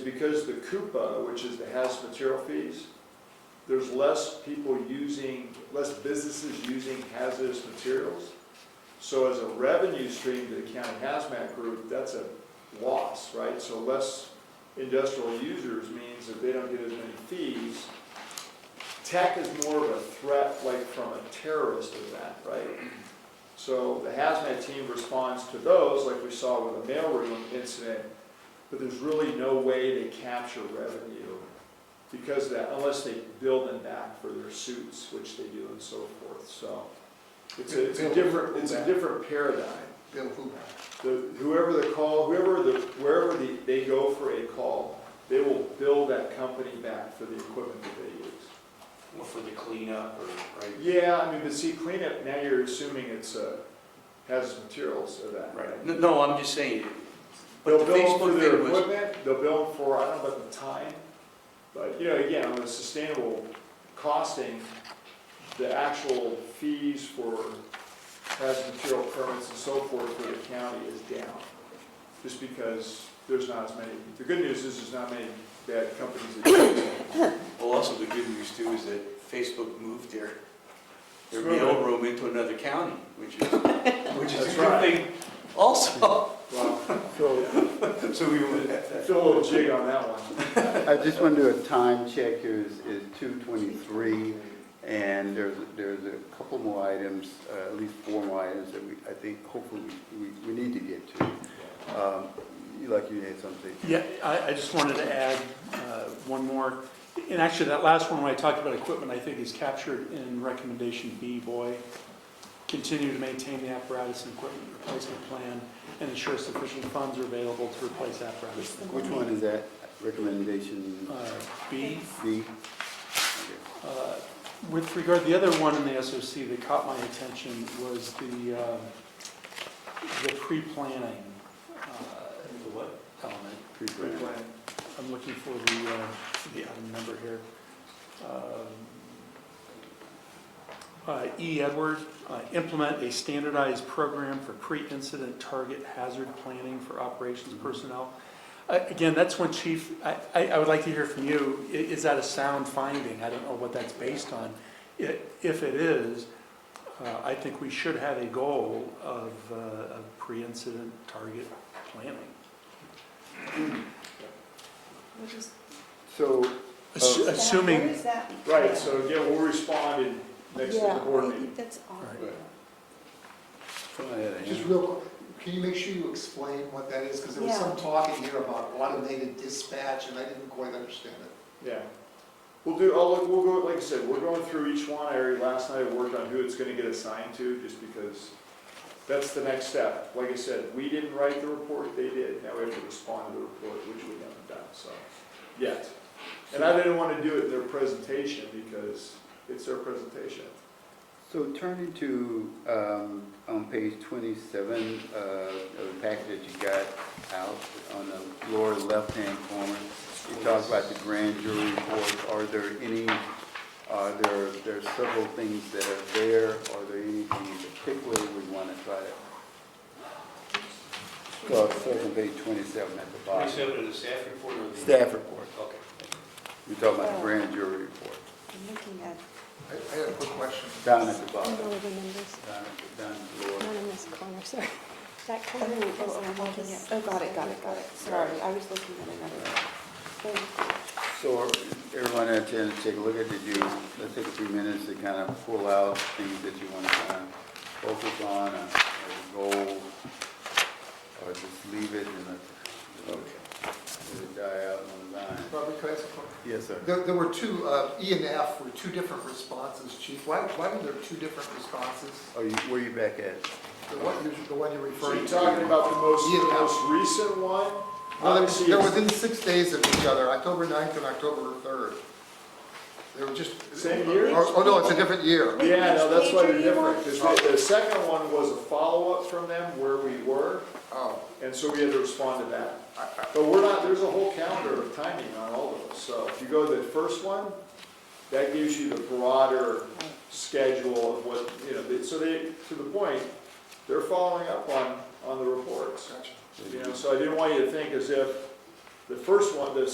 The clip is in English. because the Coupa, which is the hazardous material fees, there's less people using, less businesses using hazardous materials. So as a revenue stream to the county hazmat group, that's a loss, right? So less industrial users means that they don't get as many fees. Tech is more of a threat, like from a terrorist event, right? So the hazmat team responds to those, like we saw with the mailroom incident, but there's really no way they capture revenue because of that, unless they build them back for their suits, which they do and so forth, so. It's a, it's a different, it's a different paradigm. Bill Hoover. The, whoever the call, whoever the, wherever the, they go for a call, they will bill that company back for the equipment that they use. Well, for the cleanup or, right? Yeah, I mean, but see, cleanup, now you're assuming it's uh, hazardous materials of that. Right, No, no, I'm just saying, but They'll the bill them for Facebook their thing was, equipment, they'll bill them for, I don't know about the time, but, you know, again, on the sustainable costing, the actual fees for hazardous material permits and so forth for the county is down, just because there's not as many, the good news is there's not many bad companies that do it. well, also the good news too is that Facebook moved their, their It's moving. mailroom into another county, which is, which That's is a good right. thing also. Well, So So we would have that. Feel a little jig on that one. I just want to do a time check here, is, is two twenty-three, and there's, there's a couple more items, uh, at least four more items that we, I think, hopefully, we, we- we need to get to. Um, you- Like you had something. Yeah, I, I just wanted to add uh, one more. And actually, that last one, when I talked about equipment, I think is captured in recommendation B, boy. Continue to maintain the apparatus and equipment replacement plan and ensure sufficient funds are available to replace apparatus. and Which one is that recommendation equipment. Uh, B, B? uh, with regard, the other one in the SOC that caught my attention was the, um, the pre-planning uh, The what? element. Pre-plan. I'm looking for the, uh, the item number here. Um, uh, E. Edward, uh, implement a standardized program for pre-incident target hazard planning for operations personnel. Uh, Again, that's when chief, I, I I would like to hear from you, I- is that a sound finding? I don't know what that's based on. I- If it is, uh, I think we should have a goal of, uh, of pre-incident target planning. So, Assu- Oh. Assuming. Where is that? Right, so again, we'll respond in next Yeah, board I meeting. think that's awful. Right. I had a hand. Just real, quick, can you make sure you explain what that is? Because there was some talking here about automated dispatch, and I didn't quite understand it. Yeah. We'll do, I'll, look- we'll go, like I said, we're going through each one. I already, last night I worked on who it's gonna get assigned to, just because that's the next step. Like I said, we didn't write the report, they did. Now we have to respond to the report, which we haven't done, so, yet. And I didn't wanna do it in their presentation, because it's their presentation. So turning to, um, on page twenty-seven, uh, of the packet that you got out, on the lower left-hand corner, you talk about the grand jury report, are there any, are there, there are several things that are there, are there anything in particular we wanna try to? Well, it's on page twenty-seven at the bottom, Twenty-seven of the staff report or the? staff report, Okay. you're talking about the grand jury report, I'm looking at, I, I had a quick question. down at the I bottom, don't know the numbers, down, at- down at the lower. not in this corner, sorry. That Oh, corner is, oh, oh, I'm I'm looking looking at, oh, got it, got it, got it, sorry, I was looking at another. one. So everyone had a chance to take a look at, did you, let's take a few minutes to kind of pull out things that you want to kind of focus on, uh, as a goal, or just leave it and let, let it die out on the vine? Robert, could I ask a question? Yes, sir. There, there were two, uh, E and F were two different responses, chief. Why, why were there two different responses? Oh, you, where you back at? The one, you're- the one you're So referring you're to? talking about the most, the Yeah. most recent one? Well, Obviously, they're, they're it's- within six days of each other, October 9th and October third. They were just. Same year? Oh, oh, no, it's a different year. Yeah, no, that's why they're Which page are you on? different, because the second one was a follow-up from them where we were, Oh, and so we had to respond to that. But we're not, there's a whole calendar of timing on all of those, so if you go to the first one, that gives you the broader schedule of what, you know, they- so they, to the point, they're following up on, on the reports. gotcha. You know, so I didn't want you to think as if the first one, the